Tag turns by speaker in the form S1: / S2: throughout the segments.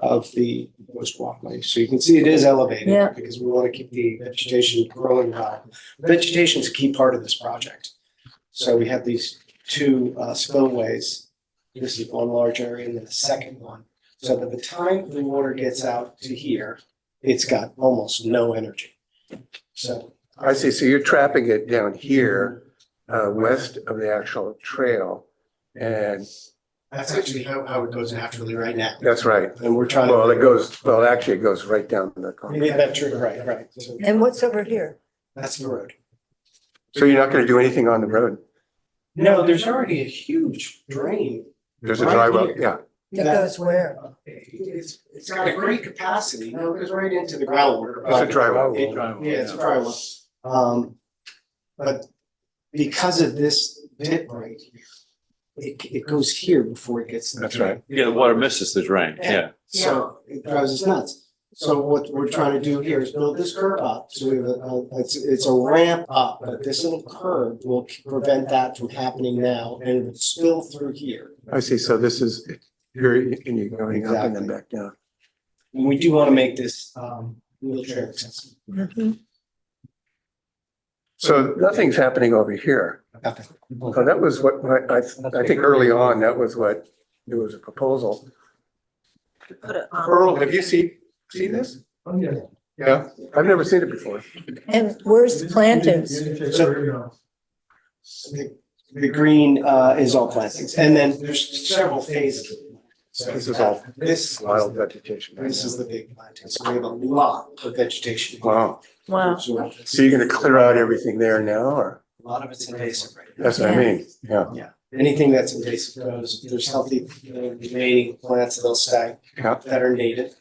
S1: of the proposed walkway. So you can see it is elevated.
S2: Yeah.
S1: Because we want to keep the vegetation growing high. Vegetation is a key part of this project. So we have these two uh, spillways. This is one large area and then the second one. So by the time the water gets out to here, it's got almost no energy. So.
S3: I see, so you're trapping it down here, uh, west of the actual trail. And
S1: That's actually how, how it goes naturally right now.
S3: that's right.
S1: And we're trying to.
S3: Well, it goes, well, actually, it goes right down the.
S1: Yeah,
S3: concrete.
S1: that's true, right, right. So
S2: And what's over here?
S1: That's the road.
S3: So you're not gonna do anything on the road?
S1: No, there's already a huge drain.
S3: There's a
S1: Right
S3: dry well,
S1: here.
S3: yeah.
S2: That
S1: that-
S2: goes where?
S1: It's, it's got a great capacity. No, it goes right into the groundwater.
S3: It's a dry well.
S1: It- Yeah, it's a dry well. Um, but because of this dip right here, it, it goes here before it gets. to the
S3: That's right.
S1: drain.
S4: Yeah, the water misses the drain, yeah.
S1: So it drives us nuts. So what we're trying to do here is build this curb up. So we have a, a- it's, it's a ramp up, but this little curb will prevent that from happening now and it would spill through here.
S3: I see, so this is, you're, and you're going up and then
S1: Exactly.
S3: back down.
S1: And we do want to make this um wheelchair accessible.
S2: Mhm.
S3: So nothing's happening over here.
S1: Nothing.
S3: Well, that was what, what I, I think early on, that was what, there was a proposal. Earl, have you seen, seen this? oh, Yeah, I've never seen it before.
S2: And where's the plantings?
S1: The, the green uh is all plantings and then there's several phases. So
S3: This is all-
S1: This,
S3: Wild vegetation.
S1: this is the big planting. So we have a lot of vegetation.
S3: Wow.
S2: Wow.
S1: So
S3: So you're gonna clear out everything there now, or?
S1: A lot of it's invasive right now.
S3: That's what I mean, yeah.
S1: Anything that's invasive goes, if there's healthy you know, remaining plants, they'll stay
S3: Yeah.
S1: that are native.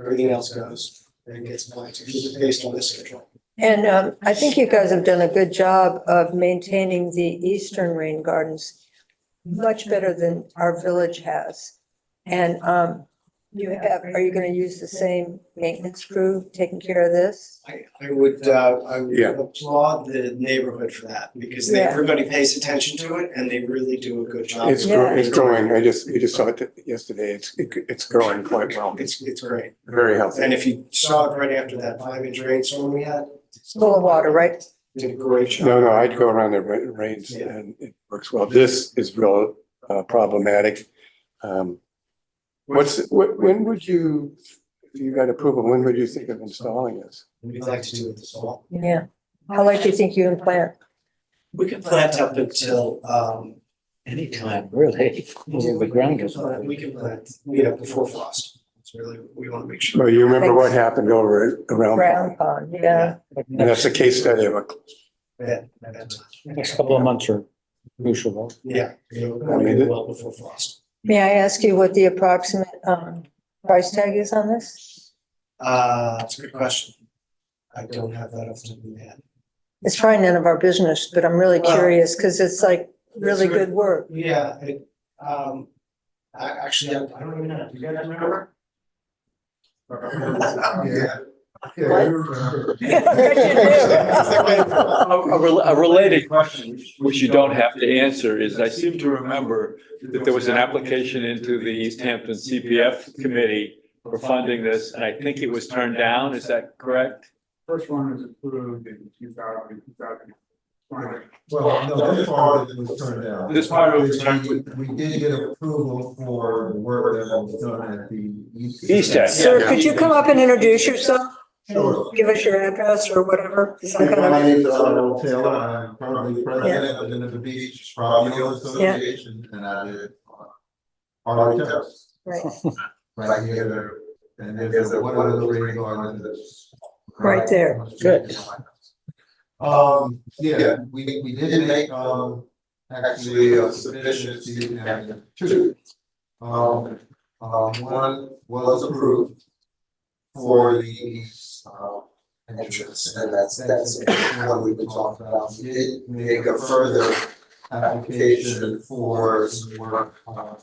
S1: Everything else goes and gets planted based on this control.
S2: And um, I think you guys have done a good job of maintaining the eastern rain gardens much better than our village has. And um, you have, are you going to use the same maintenance crew taking care of this?
S1: I, I would, uh, I would
S3: Yeah.
S1: applaud the neighborhood for that because they-
S2: Yeah.
S1: everybody pays attention to it and they really do a good job.
S3: It's, gro- it's growing, I just, you just saw it yesterday, it's, it- it's growing quite well, it's
S1: It's, it's great.
S3: very healthy.
S1: And if you saw it right after that five inch rainstorm we had. it's
S2: Full of water, right?
S1: Did a great job.
S3: No, no, I'd go around there, but it rains
S1: Yeah.
S3: and it works well. This is real uh, problematic. Um, What's, wh- when would you, if you got approval, when would you think of installing this?
S1: We'd like to do it this fall.
S2: Yeah. How like do you think you can plant?
S1: We can plant up until, um.
S5: Anytime, really. Well, The ground
S1: we can
S5: is.
S1: plant- We can plant, you know, before frost. It's really, we want to make sure.
S3: Well, you remember what
S2: Thanks.
S3: happened over at- around,
S2: Ground pond, yeah.
S3: and that's a case study of a,
S1: that- that-
S5: Next couple of months are crucial.
S1: Yeah, you know, we
S3: I
S1: want to
S3: mean,
S1: do
S3: it-
S1: well before frost.
S2: May I ask you what the approximate um, price tag is on this?
S1: Uh, it's a good question. I don't have that off the top of my head.
S2: It's probably none of our business, but I'm really
S1: Well-
S2: curious because it's like really good work.
S1: Yeah, it, um, I actually, I I don't even know, do you guys remember? Yeah.
S4: A, a rel- a related question, which you don't have to answer, is I seem to remember that there was an application into the East Hampton CPF committee for funding this, and I think it was turned down, is that correct?
S6: First one was approved in 2000, 2020.
S7: Well, no, this part of it was turned down.
S4: This part of it was turned-
S7: We we did get approval for the work that was done at the. East
S4: East End, yeah.
S2: Sir, could you come up and introduce yourself?
S7: Sure.
S2: Give us your address or whatever. some kind
S7: My
S2: of-
S7: name is Arnold Taylor, I'm currently president of the Denver Beach Property Owners
S2: Yeah.
S7: Association, and I uh, live on Harley Terrace,
S2: Right.
S7: right here, there. and then there's a one of those rain gardens that's.
S2: Right there.
S7: on the street behind us. Um, yeah, we, we did make, um, actually a submission to you, and two. Um, um, one was approved for the, uh, entrance, and that's, that's what we've been talking about. We did make a further application for some work, uh,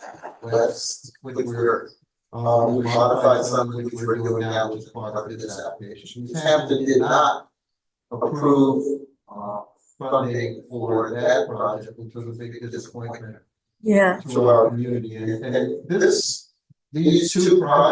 S7: west, which we're, um, we modified some, which we're doing now, which is part of this application. East Hampton did not approve, uh, funding for that project, which was a big disappointment
S2: Yeah.
S7: to our community, and, and this, these two projects